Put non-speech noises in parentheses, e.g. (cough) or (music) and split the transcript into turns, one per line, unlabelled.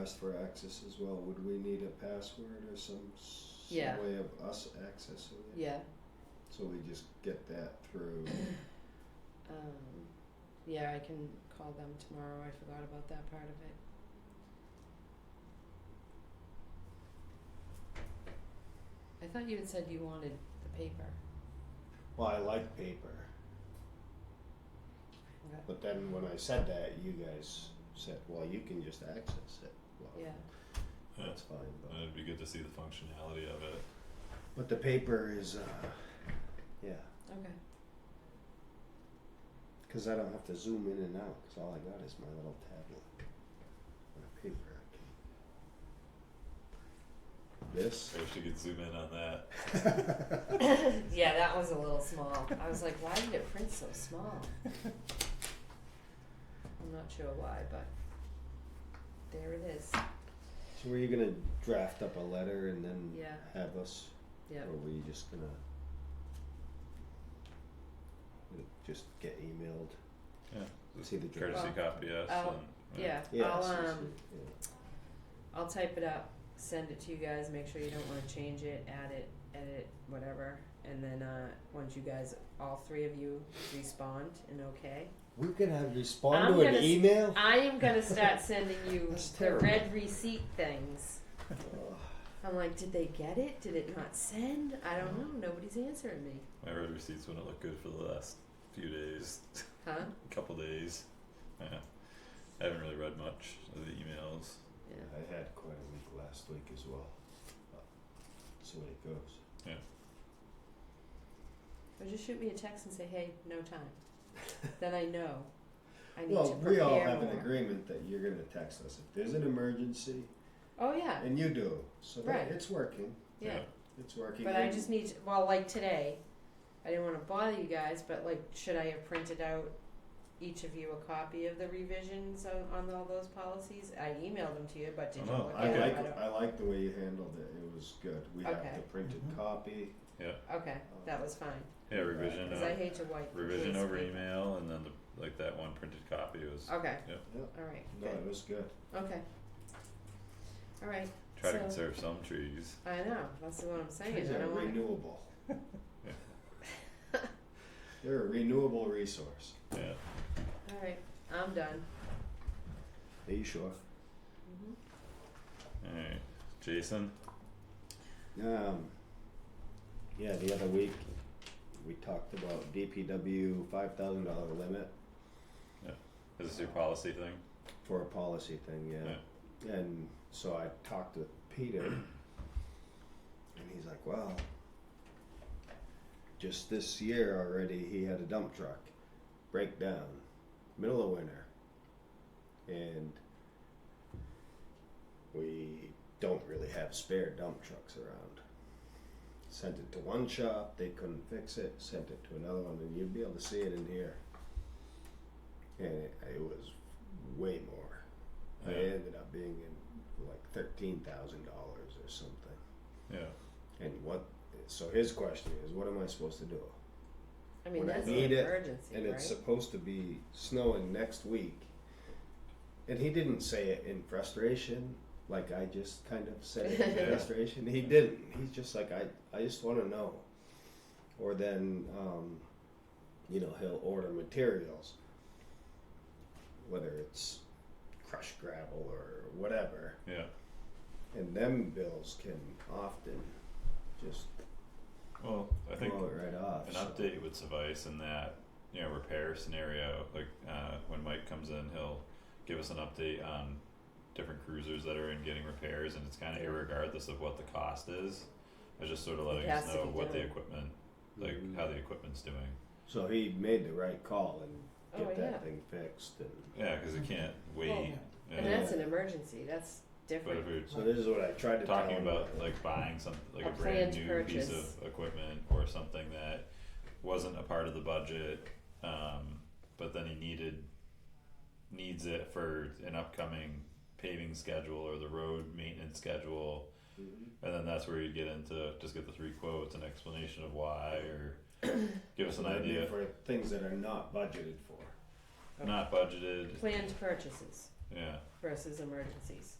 asked for access as well. Would we need a password or some, some
Yeah.
way of us accessing it?
Yeah.
So we just get that through.
Um, yeah, I can call them tomorrow. I forgot about that part of it. I thought you had said you wanted the paper.
well, I like paper,
Okay.
but then when I said that, you guys said, "Well, you can just access it." Well,
Yeah.
Yeah.
that's fine. But,
Uh, It'd be good to see the functionality of it.
but the paper is, uh, yeah,
Okay.
because I don't have to zoom in and out. Because all I got is my little tablet, my paper. I can- This.
I wish you could zoom in on that.
yeah, that was a little small. I was like, why did it print so small? (laughs) I'm not sure why, but there it is.
So were you gonna draft up a letter and then
Yeah.
have us,
Yep.
or were you just gonna Would it just get emailed?
Yeah.
See the draft.
courtesy
Well,
copy us
I'll-
and
Oh.
uh,
Yeah.
Yeah,
I'll
so- so-
um
yeah.
I'll type it up, send it to you guys, make sure you don't wanna change it, add it, edit, whatever. And then uh once you guys all three of you respond and okay.
we could have respond
I'm
to an
gonna s-
email.
I am
(laughs)
gonna start sending you
That's
the
terrible.
red receipt things.
Ugh.
I'm like, did they get it? Did it not send? I don't
Mm-hmm.
know. Nobody's answering me.
my red receipts wouldn't look good for the last few days, (laughs)
Huh?
couple days. Yeah. I haven't really read much of the emails.
Yeah.
I had quite a week last week as well. But That's the way it goes.
Or just shoot me a text and say, hey, no time.
(laughs)
then I know. I need to
Well,
prepare
we all have
more.
an agreement that you're gonna text us if there's an emergency,
Oh yeah,
and you do. So that
Right.
it's working.
yeah.
It's working.
But I
and-
just need to, well, like today, I didn't want to bother you guys, but like, should I have printed out each of you a copy of the revisions on, on all those policies? I emailed them to you, but did you
Oh, no,
look
I
at
Okay.
like
them?
I like the way you handled it. It was good. We have
Okay.
the printed
Mhm.
copy.
I don't, okay, that was fine
Yeah, revision
because
uh,
I hate to wipe.
revision
waste
over
paper.
email and then the like that one printed copy was
Okay.
Yep.
Yep.
All right.
No,
Good.
it was good.
Okay. All right.
try to
So-
conserve some trees.
I know. That's what I'm saying.
Trees
I
are
don't want to. (laughs)
renewable. They're a renewable resource.
Yeah.
All right. I'm done.
Are you sure? Mm-hmm.
hmm
Alright. Jason?
Um, yeah, the other week we talked about DPW five thousand dollar limit
Is this your policy thing?
for a policy thing, yeah. And so I talked to Peter, and he's like, "Well, just this year already, he had a dump truck break down, middle of winter, and we don't really have spare dump trucks around." Sent it to one shop, they couldn't fix it. Sent it to another one, and you'd be able to see it in here. And it, it was way more. I
Yeah.
ended up being in like thirteen thousand dollars or something.
Yeah.
And what? So his question is, what am I supposed to do?
I mean,
When I
that's
need
an
it,
emergency,
And
right?
it's supposed to be snowing next week. And he didn't say it in frustration, like I just kind of said it in
Yeah.
frustration. He didn't. He's just like I. I just want to know. Or then, um, you know, he'll order materials, whether it's crushed gravel or whatever.
Yeah.
And them bills can often just
Well, I think
blow it right off.
an
so-
update would suffice in that you know repair scenario like uh, when mike comes in he'll give us an update on different cruisers that are in getting repairs and it's kind of irregardless of what the cost is it's just sort of letting us
has to
know
be
what the
done.
equipment like
Mhm.
how the equipment's doing
So he made the right call
Oh,
and get that
yeah.
thing fixed. And
yeah because
Mm-hmm.
you can't wait
And
yeah.
that's an emergency. That's
but
different.
if we're
so this is what I tried to
talking
tell him.
about like buying some like
A
a, brand
planned
new piece
purchase.
of equipment or something that wasn't a part of the budget, um, but then he needed needs it for an upcoming paving schedule or the road maintenance schedule,
Mhm.
and then that's where you get into just get the three quotes, an explanation of why, or give us an idea.
for things that are not budgeted for.
Not budgeted,
Planned purchases
yeah,
versus emergencies.